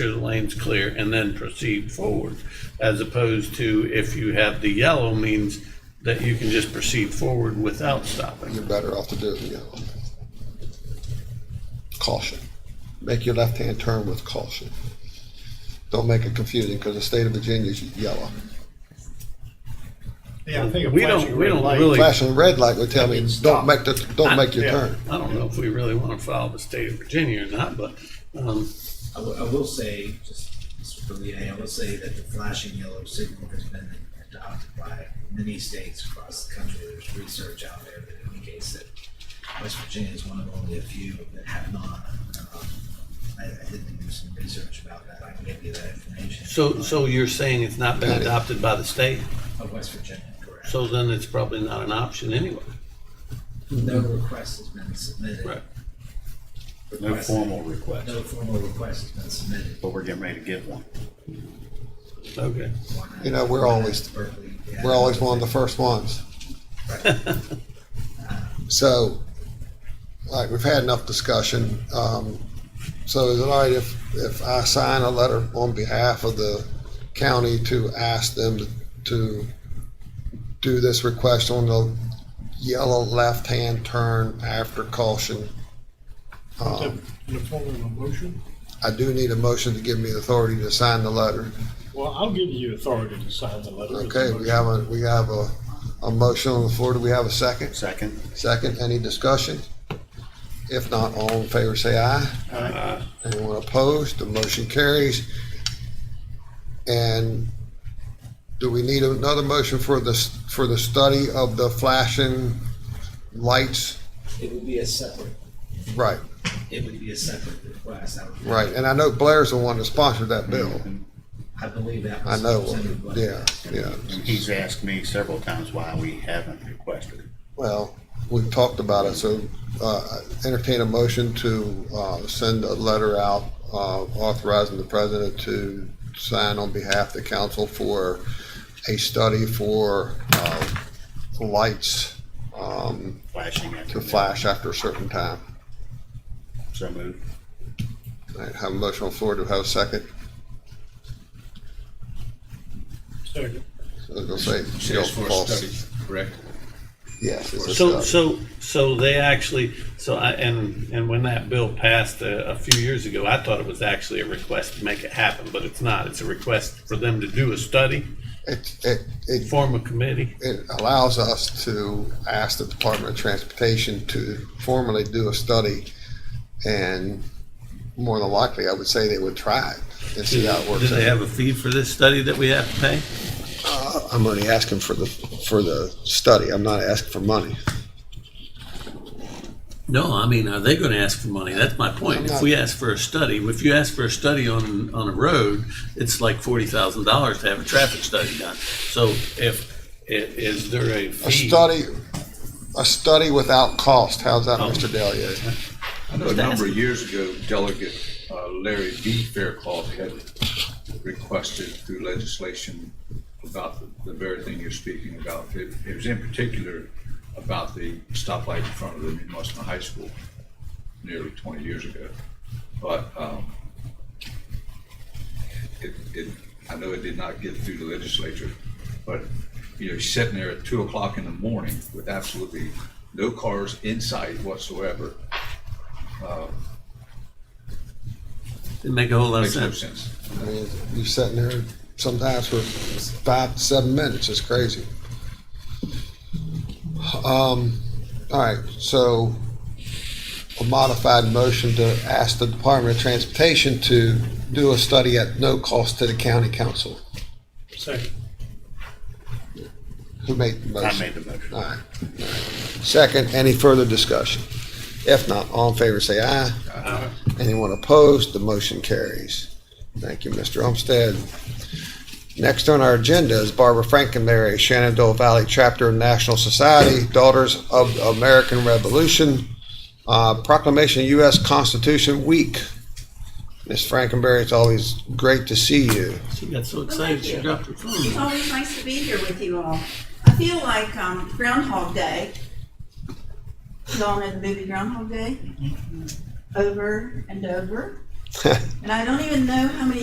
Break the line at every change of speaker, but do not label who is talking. sure the lane's clear and then proceed forward. As opposed to if you have the yellow means that you can just proceed forward without stopping.
You're better off to do the yellow. Caution. Make your left-hand turn with caution. Don't make it confusing because the state of Virginia is yellow.
Yeah, I think a
We don't-
flashing
we
red
don't
light-
really-
Flashing red light would tell me,
Fucking stop.
don't make the, don't make your
Yeah.
turn.
I don't know if we really want to follow the state of Virginia or not, but, um,
I will, I will say, just this is for Leah, I will say that the flashing yellow signal has been adopted by many states across the country. There's research out there that indicates that West Virginia is one of only a few that have not. Um, I, I did do some research about that. I can give you that information.
so, so you're saying it's not been
Got it.
adopted by the state?
Of West Virginia, correct.
So then it's probably not an option anyway.
No request has been submitted.
Right.
No
Request-
formal request,
No formal request has been submitted.
but we're getting ready to get one.
Okay.
You know, we're always-
Berkeley, yeah.
We're always one of the first ones. So, like, we've had enough discussion. Um, so is it all right if, if I sign a letter on behalf of the county to ask them to do this request on the yellow left-hand turn after caution? Um,
In the form of a motion?
I do need a motion to give me the authority to sign the letter.
Well, I'll give you authority to sign the letter. with the
Okay, we
motion.
have a, we have a, a motion on the floor. Do we have a second?
Second,
Second, any discussion? If not, all in favor say aye.
Aye.
Anyone opposed? The motion carries. And do we need another motion for the, for the study of the flashing lights?
It would be a separate,
Right,
it would be a separate request. I would-
right. And I know Blair's the one that sponsored that bill.
I believe that
I
was.
know,
presented by-
yeah, yeah.
and he's asked me several times why we haven't requested it.
Well, we've talked about it, so uh, entertain a motion to uh, send a letter out uh, authorizing the president to sign on behalf of the council for a study for uh, lights um,
Flashing after.
to flash after a certain time.
So moved.
All right, have a motion on the floor to have a second.
Second.
So They'll say.
Says for a
false.
study, correct?
Yes, it's a
So,
study.
so, so they actually, so I, and, and when that bill passed uh, a, a few years ago, I thought it was actually a request to make it happen, but it's not. It's a request for them to do a study,
It, it, it
form a committee.
it allows us to ask the Department of Transportation to formally do a study, and more than likely, I would say they would try it and see how it works.
Do they have a fee for this study that we have to pay?
Uh, I'm only asking for the, for the study, I'm not asking for money.
No, I mean, are they gonna ask for money? That's my point. If we ask for a study, if you ask for a study on, on a road, it's like forty thousand dollars to have a traffic study done. So if, i- is there a
A
fee?
study, a study without cost, how's
Oh.
that, Mr. Delia?
I know a number of years ago, Delegate uh, Larry B. Faircloth had requested through legislation about the- the very thing you're speaking about. It it was in particular about the stoplight in front of the New Musselman High School nearly 20 years ago. But um, it, it, I know it did not get through the legislature, but, you know, sitting there at two o'clock in the morning with absolutely no cars in sight whatsoever,
Didn't make a whole lot of
makes no
sense.
sense.
I mean, you're sitting there sometimes for five to seven minutes. It's crazy. Um, all right, so a modified motion to ask the Department of Transportation to do a study at no cost to the county council.
Second.
Who made the
I
motion?
made the motion.
All right. all right. Second, any further discussion? If not, all in favor say aye. Anyone opposed, the motion carries. Thank you, Mr. Olmsted. Next on our agenda is Barbara Frankenberry, Shenandoah Valley Chapter National Society, Daughters of the American Revolution, uh, Proclamation of U.S. Constitution Week. Ms. Frankenberry, it's always great to see you.
She got so excited, she dropped her phone.
It's always nice to be here with you all. I feel like um, Groundhog Day. Y'all know the movie Groundhog Day? Over and over And I don't even know how many